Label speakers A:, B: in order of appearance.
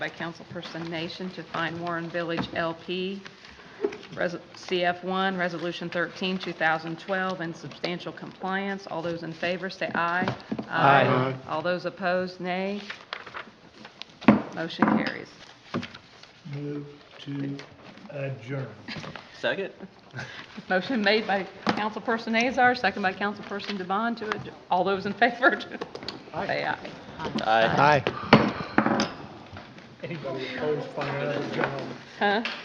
A: by Councilperson Nation to fine Warren Village LP, Res- CF1, Resolution 13, 2012, in substantial compliance. All those in favor, say aye.
B: Aye.
A: All those opposed, nay. Motion carries.
B: Move to adjourn.
C: Second?
A: Motion made by Councilperson Azar, second by Councilperson Devon to, adj- all those in favor, to- say aye.
C: Aye.
B: Anybody opposed, find out.
A: Huh?